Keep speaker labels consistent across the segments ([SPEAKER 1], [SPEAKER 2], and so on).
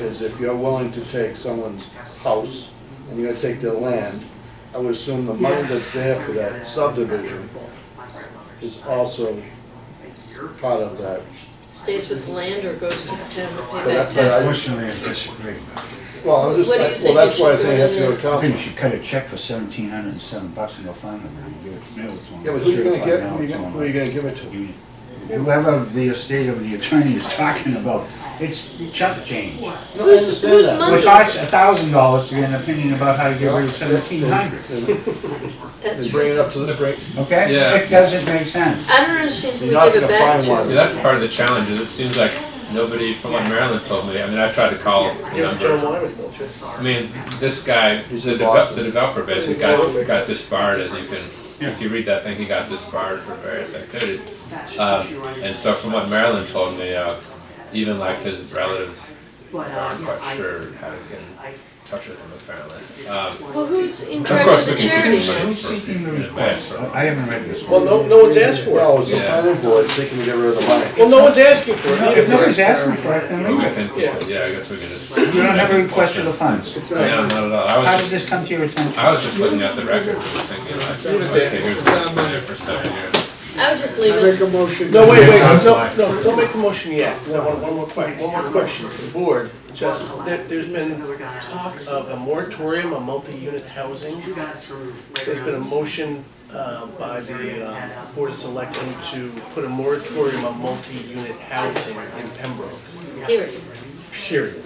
[SPEAKER 1] is if you're willing to take someone's house and you're gonna take their land, I would assume the money that's there for that subdivision is also part of that.
[SPEAKER 2] Stays with the land or goes to the town to
[SPEAKER 1] But
[SPEAKER 2] pay
[SPEAKER 1] I-
[SPEAKER 2] back
[SPEAKER 1] but I-
[SPEAKER 2] taxes?
[SPEAKER 3] Pushing the disagree.
[SPEAKER 1] Well, I was
[SPEAKER 2] What do you
[SPEAKER 1] just, well,
[SPEAKER 2] think
[SPEAKER 1] that's
[SPEAKER 2] we
[SPEAKER 1] why I
[SPEAKER 2] should
[SPEAKER 1] think
[SPEAKER 2] do
[SPEAKER 1] I have to go to
[SPEAKER 3] I think you
[SPEAKER 1] council.
[SPEAKER 3] should cut a check for seventeen hundred and seven bucks and go find them and give it to them. It's on
[SPEAKER 1] Yeah, but who are you gonna
[SPEAKER 3] certified
[SPEAKER 1] get,
[SPEAKER 3] now,
[SPEAKER 1] who are you
[SPEAKER 3] it's
[SPEAKER 1] gonna-
[SPEAKER 3] on
[SPEAKER 1] who are you gonna give it to?
[SPEAKER 3] union. Whoever the estate of the attorney is talking about, it's chump change.
[SPEAKER 1] No, I
[SPEAKER 2] Who's-
[SPEAKER 1] understand
[SPEAKER 2] whose
[SPEAKER 1] that.
[SPEAKER 2] money?
[SPEAKER 3] It costs a thousand dollars to get an opinion about how to get rid of seventeen hundred,
[SPEAKER 1] And
[SPEAKER 2] That's
[SPEAKER 1] bring
[SPEAKER 2] true.
[SPEAKER 1] it up to the, bring,
[SPEAKER 3] okay?
[SPEAKER 4] Yeah.
[SPEAKER 3] It doesn't make sense.
[SPEAKER 2] I don't understand who we
[SPEAKER 1] You're not
[SPEAKER 2] give it
[SPEAKER 1] gonna
[SPEAKER 2] back
[SPEAKER 1] find
[SPEAKER 2] to.
[SPEAKER 1] one.
[SPEAKER 4] Yeah, that's part of the challenge, is it seems like nobody from like Maryland told me, I mean, I tried to call the
[SPEAKER 5] Give it to John
[SPEAKER 4] number.
[SPEAKER 5] Wyman, don't you?
[SPEAKER 4] I mean, this guy,
[SPEAKER 1] He's
[SPEAKER 4] the
[SPEAKER 1] in
[SPEAKER 4] developer,
[SPEAKER 1] Boston.
[SPEAKER 4] the developer basically got, got disbarred as you can, if you read that thing, he got disbarred for various activities. Um, and so from what Maryland told me, uh, even like his relatives aren't quite sure how to get in touch with him apparently. Um,
[SPEAKER 2] Well, who's in
[SPEAKER 4] of
[SPEAKER 2] charge of
[SPEAKER 4] course, we
[SPEAKER 2] the
[SPEAKER 4] can
[SPEAKER 2] charity
[SPEAKER 4] give him money
[SPEAKER 2] now?
[SPEAKER 3] Who's
[SPEAKER 4] for,
[SPEAKER 3] seeking the
[SPEAKER 4] in advance
[SPEAKER 3] request?
[SPEAKER 4] for.
[SPEAKER 3] I haven't read this
[SPEAKER 5] Well,
[SPEAKER 3] one.
[SPEAKER 5] no, no one's asked for it.
[SPEAKER 1] no, it's the
[SPEAKER 4] Yeah.
[SPEAKER 1] planning board, they can get rid of the money.
[SPEAKER 5] Well, no one's asking for it.
[SPEAKER 3] If nobody's asking for it, then
[SPEAKER 4] But we
[SPEAKER 3] leave it.
[SPEAKER 4] can, yeah, I guess we can just.
[SPEAKER 3] You don't have a request for the funds.
[SPEAKER 1] It's
[SPEAKER 4] No,
[SPEAKER 1] not,
[SPEAKER 4] not at all, I was
[SPEAKER 3] How
[SPEAKER 4] just.
[SPEAKER 3] did this come to your attention?
[SPEAKER 4] I was just looking at the record and thinking like, okay, here's what's been there for seven years.
[SPEAKER 2] I would just leave
[SPEAKER 1] I make
[SPEAKER 2] it.
[SPEAKER 1] a motion.
[SPEAKER 5] No, wait, wait, no, no, don't make a motion yet. No, one, one more question, one more question for the board. Just, there, there's been talk of a moratorium on multi-unit housing. There's been a motion, uh, by the, uh, Board of Selectmen to put a moratorium on multi-unit housing in Pembroke,
[SPEAKER 2] Here.
[SPEAKER 5] period.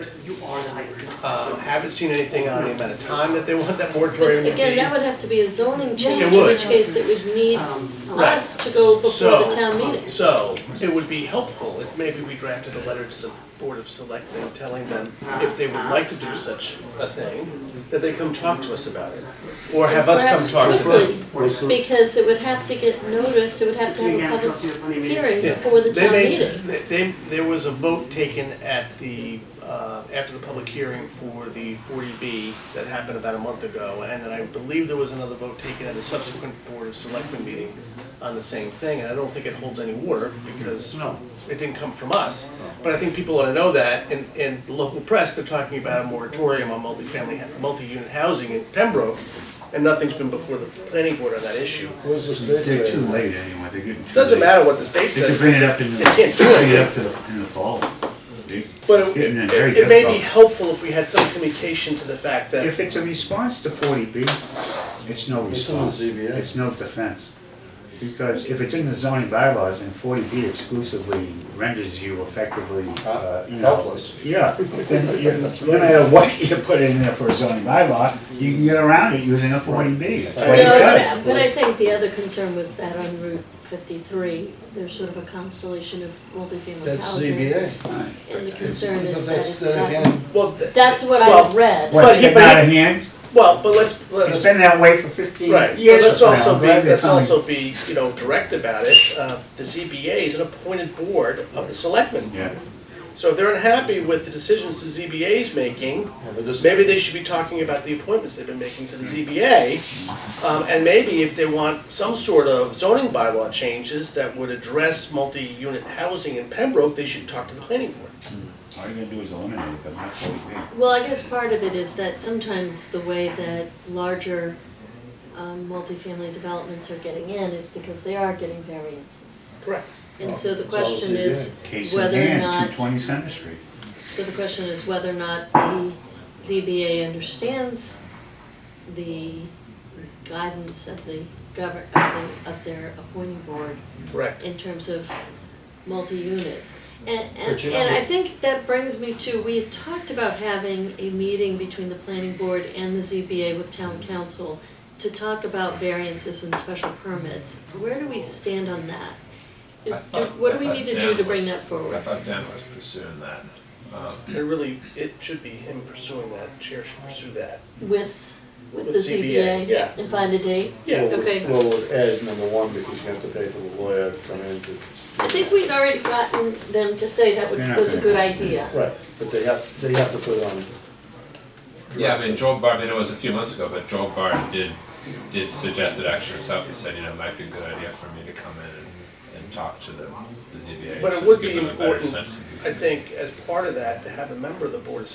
[SPEAKER 5] Uh, haven't seen anything on the amount of time that they want that moratorium to be.
[SPEAKER 2] Again, that would have to be a zoning change, in
[SPEAKER 5] would. Um,
[SPEAKER 2] which case it would need us to go before
[SPEAKER 5] So-
[SPEAKER 2] the town meeting.
[SPEAKER 5] So, it would be helpful if maybe we drafted a letter to the Board of Selectmen telling them if they would like to do such a thing, that they come talk to us about it. Or have us come
[SPEAKER 2] Perhaps
[SPEAKER 5] talk to us.
[SPEAKER 2] quickly, because it would have to get noticed, it would have to have a public hearing before the
[SPEAKER 5] They
[SPEAKER 2] town
[SPEAKER 5] made,
[SPEAKER 2] meeting.
[SPEAKER 5] they- they, there was a vote taken at the, uh, after the public hearing for the forty B that happened about a month ago, and then I believe there was another vote taken at a subsequent Board of Selectmen meeting on the same thing, and I don't think it holds any water, because
[SPEAKER 1] No.
[SPEAKER 5] it didn't come from us, but I think people ought to know that, and, and the local press, they're talking about a moratorium on multifamily, multi-unit housing in Pembroke, and nothing's been before the planning board on that issue.
[SPEAKER 1] What's the state
[SPEAKER 3] They're too
[SPEAKER 1] saying?
[SPEAKER 3] late anyway, they're getting too late.
[SPEAKER 5] Doesn't matter what the state
[SPEAKER 3] They could
[SPEAKER 5] says,
[SPEAKER 3] bring
[SPEAKER 5] because
[SPEAKER 3] it up
[SPEAKER 5] they
[SPEAKER 3] in the,
[SPEAKER 5] can't do
[SPEAKER 3] bring it
[SPEAKER 5] it.
[SPEAKER 3] up to the, in the fall. They-
[SPEAKER 5] But it,
[SPEAKER 3] getting in very
[SPEAKER 5] it- it may be
[SPEAKER 3] difficult.
[SPEAKER 5] helpful if we had some communication to the fact that,
[SPEAKER 3] If it's a response to forty B, it's no
[SPEAKER 1] It's in the
[SPEAKER 3] response.
[SPEAKER 1] ZBA.
[SPEAKER 3] It's no defense. Because if it's in the zoning bylaws and forty B exclusively renders you effectively, uh, you know.
[SPEAKER 1] Helpless.
[SPEAKER 3] Yeah, then you, no matter what you put in there for a zoning bylaw, you can get around it using a forty B. That's what it
[SPEAKER 2] No, but,
[SPEAKER 3] does.
[SPEAKER 2] I- but I think the other concern was that on Route fifty-three, there's sort of a constellation of multifamily
[SPEAKER 1] That's
[SPEAKER 2] housing.
[SPEAKER 1] ZBA.
[SPEAKER 2] And the concern
[SPEAKER 1] But
[SPEAKER 2] is that
[SPEAKER 1] that's-
[SPEAKER 2] it's
[SPEAKER 1] then
[SPEAKER 2] got,
[SPEAKER 1] again,
[SPEAKER 5] well, th-
[SPEAKER 2] that's what
[SPEAKER 5] Well,
[SPEAKER 2] I read.
[SPEAKER 3] What,
[SPEAKER 5] But he-
[SPEAKER 3] it's
[SPEAKER 5] but he-
[SPEAKER 3] out of hand?
[SPEAKER 5] well, but let's,
[SPEAKER 3] It's
[SPEAKER 5] let's,
[SPEAKER 3] been that way for fifteen
[SPEAKER 5] right,
[SPEAKER 3] years.
[SPEAKER 5] but let's
[SPEAKER 3] now. I'm
[SPEAKER 5] also be,
[SPEAKER 3] glad they
[SPEAKER 5] let's
[SPEAKER 3] finally-
[SPEAKER 5] also be, you know, direct about it. Uh, The ZBA is an appointed board of the selectmen.
[SPEAKER 3] Yeah.
[SPEAKER 5] So if they're unhappy with the decisions the ZBA is making,
[SPEAKER 1] yeah, but this-
[SPEAKER 5] maybe they should be talking about the appointments they've been making to the ZBA. Um, and maybe if they want some sort of zoning bylaw changes that would address multi-unit housing in Pembroke, they should talk to the planning board.
[SPEAKER 3] All you're gonna do is eliminate it, but not forty B.
[SPEAKER 2] Well, I guess part of it is that sometimes the way that larger um, multifamily developments are getting in is because they are getting variances.
[SPEAKER 5] Correct.
[SPEAKER 2] And so
[SPEAKER 1] It's
[SPEAKER 2] the
[SPEAKER 1] all
[SPEAKER 2] question is
[SPEAKER 3] Case in
[SPEAKER 2] whether or
[SPEAKER 3] hand, two
[SPEAKER 2] not,
[SPEAKER 3] twenty Center Street.
[SPEAKER 2] so the question is whether or not the ZBA understands the guidance of the govern, of the, of their appointing board
[SPEAKER 5] Correct.
[SPEAKER 2] in terms of multi-units. And, and,
[SPEAKER 1] But you know-
[SPEAKER 2] and I think that brings me to, we had talked about having a meeting between the planning board and the ZBA with town council to talk about variances and special permits. Where do we stand on that? Is, do, what do we need to do to bring that
[SPEAKER 4] I
[SPEAKER 2] forward?
[SPEAKER 4] thought Dan was pursuing that. Um,
[SPEAKER 5] It really, it should be him pursuing that, chair should pursue that.
[SPEAKER 2] With, with the
[SPEAKER 5] With ZBA,
[SPEAKER 2] ZBA?
[SPEAKER 5] yeah.
[SPEAKER 2] And find a date?
[SPEAKER 5] Yeah.
[SPEAKER 1] Well,
[SPEAKER 2] Okay.
[SPEAKER 1] Well, add number one, because you have to pay for the lawyer to come in to,
[SPEAKER 2] I think we'd already gotten them to say that
[SPEAKER 3] They're
[SPEAKER 2] was,
[SPEAKER 3] not
[SPEAKER 2] was a
[SPEAKER 3] gonna
[SPEAKER 2] good
[SPEAKER 3] consider
[SPEAKER 2] idea.
[SPEAKER 1] right, but they have, they have to put it on.
[SPEAKER 4] Yeah, I mean, Joel Bard, I mean, it was a few months ago, but Joel Bard did, did suggest it actually himself, he said, you know, it might be a good idea for me to come in and, and talk to the, the ZBA.
[SPEAKER 5] But it
[SPEAKER 4] just
[SPEAKER 5] would
[SPEAKER 4] give
[SPEAKER 5] be
[SPEAKER 4] them a better
[SPEAKER 5] important,
[SPEAKER 4] sense of these
[SPEAKER 5] I think, as part of that, to have a member of the board of